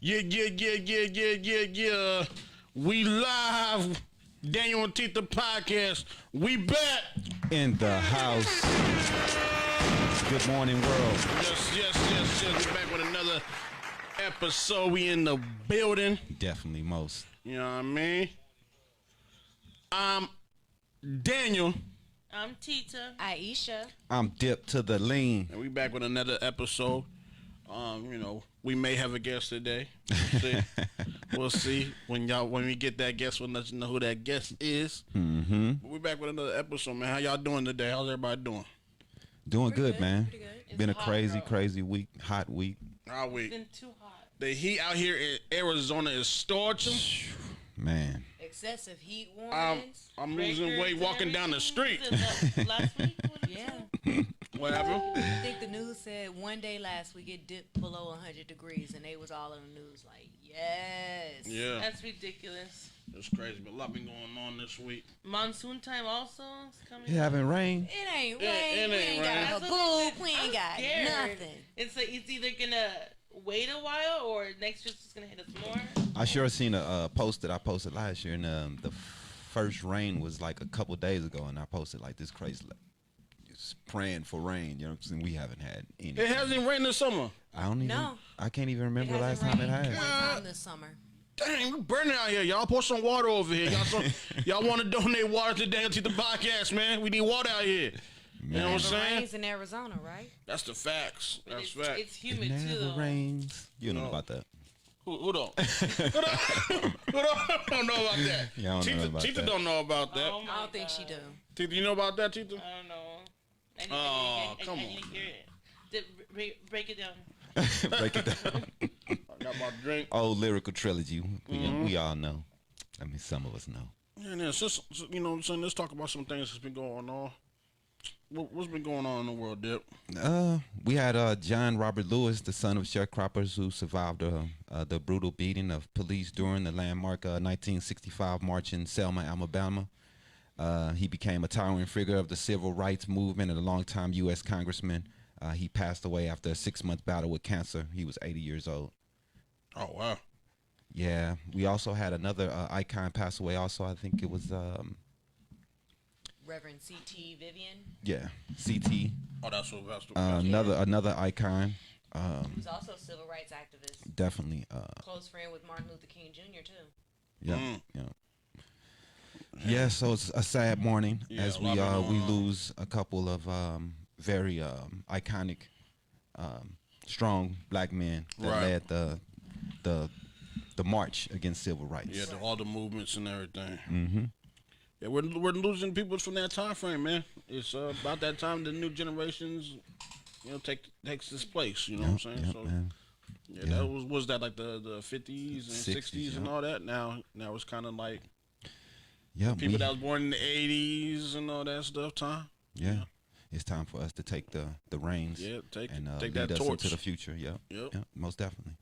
Yeah, yeah, yeah, yeah, yeah, yeah, yeah. We live. Daniel and Tita podcast. We back. in the house. Good morning, world. Yes, yes, yes, yes. We back with another episode. We in the building. Definitely most. You know what I mean? I'm Daniel, I'm Tita. Aisha. I'm dipped to the lean. and we back with another episode. Um, you know, we may have a guest today. We'll see. we'll see when y'all when we get that guest. We'll let you know who that guest is. Mm-hmm. But we back with another episode, man. How y'all doing today? How's everybody doing? Doing good, good, man. pretty good. It's Been a hot crazy, out. crazy week. Hot week, How we? It's been too hot. The heat out here in Arizona is scorching. man. Excessive heat Um, I'm, warnings. I'm losing weight walking down the street. Last week? yeah. Whatever. I think the news said one day last week it dipped below 100 degrees and they was all in the news like, yes. Yeah, That's ridiculous. it's crazy, but a lot been going on this week. Monsoon time also is coming. It haven't rained. It ain't It- rain. it we ain't rain. ain't got That's a what boob. We I'm ain't got scared. nothing. It's like it's either gonna wait a while or next year's just gonna hit us more. I sure seen a uh, post that I posted last year, and um, the first rain was like a couple days ago, and I posted like this crazy, like, just praying for rain. You know what I'm saying? We haven't had any. It hasn't rained this summer. I don't even. No. I can't even remember It the last hasn't time it rained had. One time this summer. Dang, we burning out here. Y'all pour some water over here. Y'all, some, y'all want to donate water to Daniel to the podcast, man? We need water out here. You know what I'm It saying? rains in Arizona, right? That's the facts. That's it's, fact. it's It humid too never though. rains. You don't know about that. Who, who don't? who don't? Who don't, don't know about that? Yeah, I don't know Tita, about Tita that. don't know about that. Oh my I don't think she God. do. Tita, you know about that, Tita? I don't know. I need, Oh, I need, I, come I, I on, need to hear it. The- break- break it down. Break it down. I got my drink. old lyrical trilogy. We, we all know. I mean, some of us know. Yeah, yeah. Since so- you know, what I'm saying, let's talk about some things that's been going on. What, what's been going on in the world, Dip? Uh, we had uh, John Robert Lewis, the son of sharecroppers who survived uh, uh, the brutal beating of police during the landmark uh, 1965 march in Selma, Alabama. Uh, he became a towering figure of the civil rights movement and a longtime U.S. congressman. Uh, he passed away after a six-month battle with cancer. He was 80 years old. Oh wow, Yeah, we also had another uh, icon pass away. Also, I think it was um, Reverend C.T. Vivian, yeah, CT. oh that's what that's what. Uh, that's- another another icon, who's also a civil rights activist, definitely. Uh, close friend with Martin Luther King Jr. too. yeah, Mm. yeah. Yeah, so it's a sad morning Yeah, as a we lot been uh, we going on. lose a couple of um, very um, iconic, um, strong black men that Right. led the the the march against civil rights. Mm-hmm. yeah, the, all the movements and everything. Yeah, we're we're losing people from that time frame, man. It's uh, about that time the new generations, you know, take takes this place. You know what I'm saying? Yep, so man. yeah, yeah. that was was that like the the 50s and 60s, 60s and yeah. all that. Now now it's kind of like Yeah, people we- that was born in the 80s and all that stuff. Time. yeah, it's time for us to take the the reins. Yeah, take and uh, take lead that us torch. into the future. Yeah, Yep. yeah, most definitely.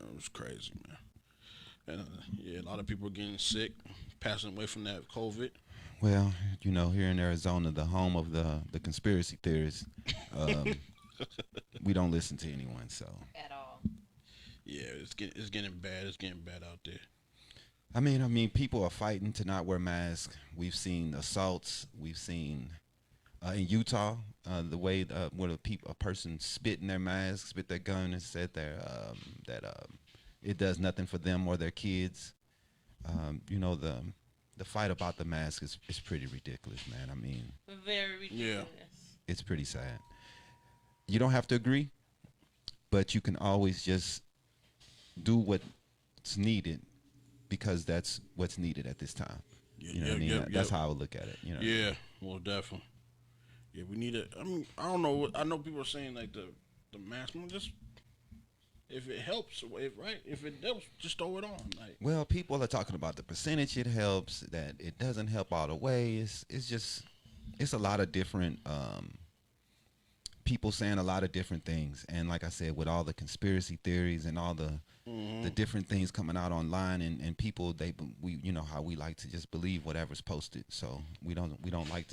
Man, it was crazy, man. And uh, yeah, a lot of people are getting sick, passing away from that COVID. Well, you know, here in Arizona, the home of the the conspiracy theorists, um, we don't listen to anyone. So, At all. Yeah, it's getting it's getting bad. It's getting bad out there. I mean, I mean, people are fighting to not wear masks. We've seen assaults. We've seen uh, in Utah uh, the way uh, when a peop a person spit in their mask, spit their gun, and said their um, that um, it does nothing for them or their kids. Um, you know the the fight about the mask is is pretty ridiculous, man. I mean, Very ridiculous. it's pretty sad. You don't have to agree, but you can always just do what's needed because that's what's needed at this time. Yeah, You know what I yeah, mean? yeah, That's yeah. how I would look at it. You know? Yeah, well, definitely. Yeah, we need a. I mean, I don't know. what- I know people are saying like the the mask. well, Just if it helps, if right, if it helps, just throw it on. Like Well, people are talking about the percentage it helps, that it doesn't help all the way. It's it's just it's a lot of different um, people saying a lot of different things, and like I said, with all the conspiracy theories and all the the different things coming out online, and, and people they we you know how we like to just believe whatever's posted, so we don't we don't like to.